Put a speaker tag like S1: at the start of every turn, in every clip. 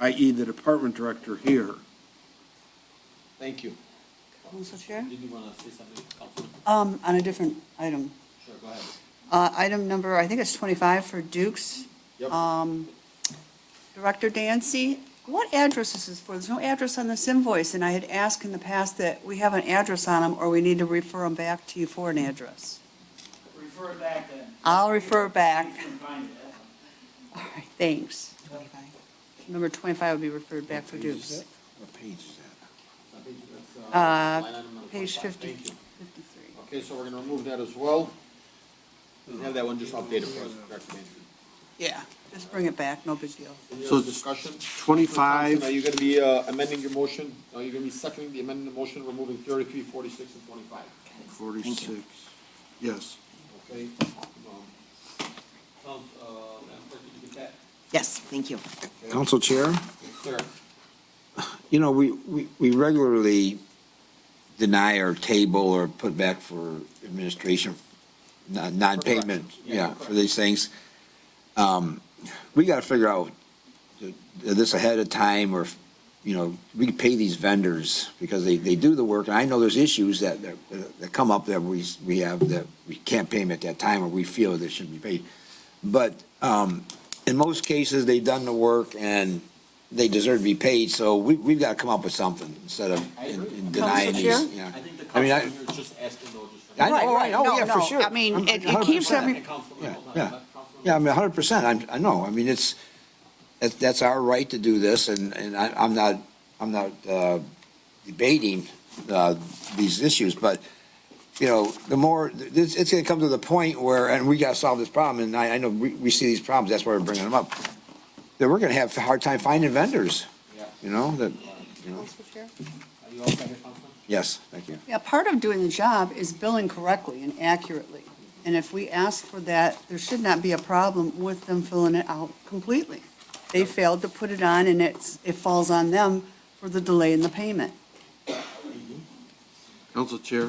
S1: i.e. E, the department director here.
S2: Thank you.
S3: Council Chair?
S2: Did you want to say something, Councilman?
S3: Um, on a different item.
S2: Sure, go ahead.
S3: Uh, item number, I think it's twenty-five for Duke's. Um, Director Dancy, what address is this for? There's no address on this invoice, and I had asked in the past that we have an address on them, or we need to refer them back to you for an address.
S4: Refer it back then.
S3: I'll refer back.
S4: You can find it.
S3: All right, thanks. Number twenty-five would be referred back for Duke's.
S1: What page is that?
S3: Uh,
S2: Line item number
S3: Page
S2: 25.
S3: fifty,
S2: Thank you.
S3: fifty-three.
S2: Okay, so we're going to remove that as well. And have that one just updated for us, Director Mansion.
S3: Yeah, just bring it back, no big deal.
S2: Any
S1: So
S2: other
S1: it's
S2: discussion? Are
S1: 25,
S2: you going to be uh, amending your motion? Are you going to be seconding the amended motion, removing thirty-three, forty-six, and twenty-five?
S1: 46, yes.
S2: Okay? Um, Council, uh, you get that?
S5: Yes, thank you.
S6: Council Chair,
S2: Clear.
S6: you know, we, we, we regularly deny or table or put back for administration, non- non-payment, yeah, for these things. Um, we gotta figure out th- this ahead of time or, you know, we pay these vendors because they, they do the work. And I know there's issues that, that, that come up that we, s- we have that we can't pay them at that time or we feel they shouldn't be paid. But, um, in most cases, they've done the work and they deserve to be paid, so we, we've got to come up with something instead of
S2: I
S6: in-
S2: agree.
S6: in denying
S3: Council
S6: these, yeah.
S2: I think the
S6: I mean, I-
S2: council here is just asking though, just. for-
S6: I know,
S3: Right,
S6: right,
S3: right,
S6: oh,
S3: no,
S6: yeah, for
S3: no.
S6: sure.
S5: I mean,
S6: I'm-
S5: it- it
S6: 100%.
S5: keeps every-
S2: And Councilman,
S6: Yeah,
S2: hold on,
S6: yeah.
S2: let Councilman-
S6: Yeah, I mean, hundred percent, I'm, I know, I mean, it's, that's, that's our right to do this, and, and I, I'm not, I'm not, uh, debating, uh, these issues, but, you know, the more, it's, it's gonna come to the point where, and we gotta solve this problem, and I, I know we, we see these problems, that's why we're bringing them up, that we're gonna have a hard time finding vendors,
S2: Yeah.
S6: you know, that, you know,
S3: Council Chair?
S2: Are you all set here, Councilman?
S6: yes, thank you.
S3: Yeah, part of doing the job is billing correctly and accurately. And if we ask for that, there should not be a problem with them filling it out completely. They failed to put it on and it's, it falls on them for the delay in the payment.
S1: Council Chair?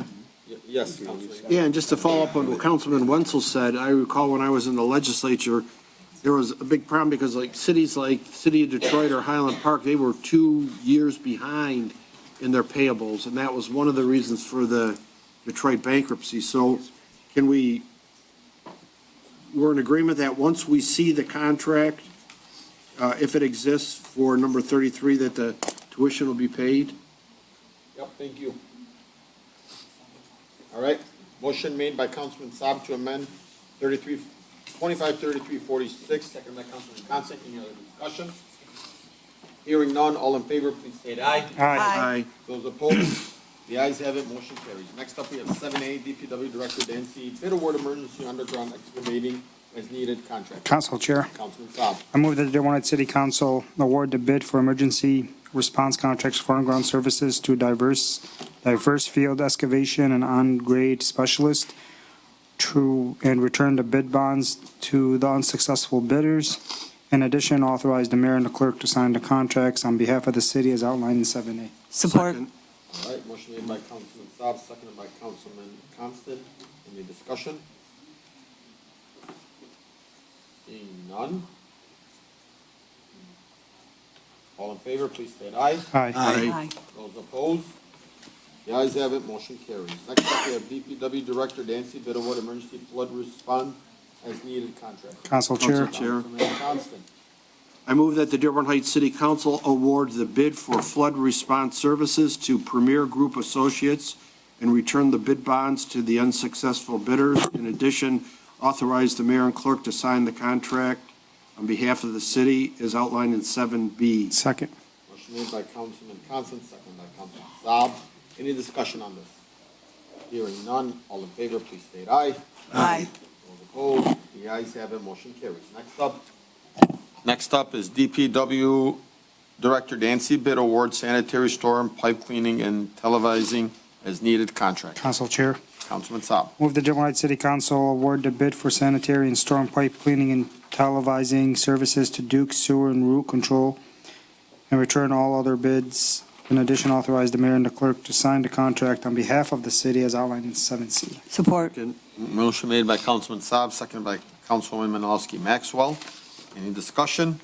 S2: Y- Yes, Councilman.
S1: Yeah, and just to follow up on what Councilman Wenzel said, I recall when I was in the legislature, there was a big problem because like cities like City of Detroit or Highland Park, they were two years behind in their payables, and that was one of the reasons for the Detroit bankruptcy. So can we, we're in agreement that once we see the contract, uh, if it exists for number thirty-three, that the tuition will be paid?
S2: Yep, thank you. All right, motion made by Councilman Saab to amend 33, 25, 33, 46, second by Councilman Constant. Any other discussion? Hearing none, all in favor, please state aye.
S3: Aye.
S2: Those opposed, the ayes have it, motion carries. Next up, we have seven A, DPW Director Dancy, bid award emergency underground excavating as needed contract.
S7: Council Chair,
S2: Councilman Saab.
S7: I move that the Dearborn Heights City Council award the bid for emergency response contracts for on-ground services to diverse, diverse field excavation and on-grade specialist to, and return the bid bonds to the unsuccessful bidders. In addition, authorize the mayor and the clerk to sign the contracts on behalf of the city as outlined in 7A.
S5: Support.
S1: Second.
S2: All right, motion made by Councilman Saab, seconded by Councilman Constant. Any discussion? Seeing none. All in favor, please state aye.
S7: Aye.
S3: Aye.
S2: Those opposed? The ayes have it, motion carries. Next up, we have DPW Director Dancy Bitterwood Emergency Flood Response as Needed Contract.
S7: Council Chair,
S1: Council Chair.
S2: Councilman Constant.
S1: I move that the Dearborn Heights City Council award the bid for flood response services to Premier Group Associates and return the bid bonds to the unsuccessful bidders. In addition, authorize the mayor and clerk to sign the contract on behalf of the city as outlined in 7B.
S7: second.
S2: Motion made by Councilman Constant, second by Councilman Saab. Any discussion on this? Hearing none, all in favor, please state aye.
S3: Aye.
S2: Those opposed, the ayes have it, motion carries. Next up. Next up is DPW Director Dancy Bid Award Sanitary Storm Pipe Cleaning and Televising as Needed Contract.
S7: Council Chair.
S2: Councilman Saab.
S7: Move the Dearborn Heights City Council award the bid for sanitary and storm pipe cleaning and televising services to Duke Sewer and Root Control and return all other bids. In addition, authorize the mayor and the clerk to sign the contract on behalf of the city as outlined in 7C.
S5: Support.
S2: Motion made by Councilman Saab, seconded by Councilwoman Menalowski Maxwell. Any discussion?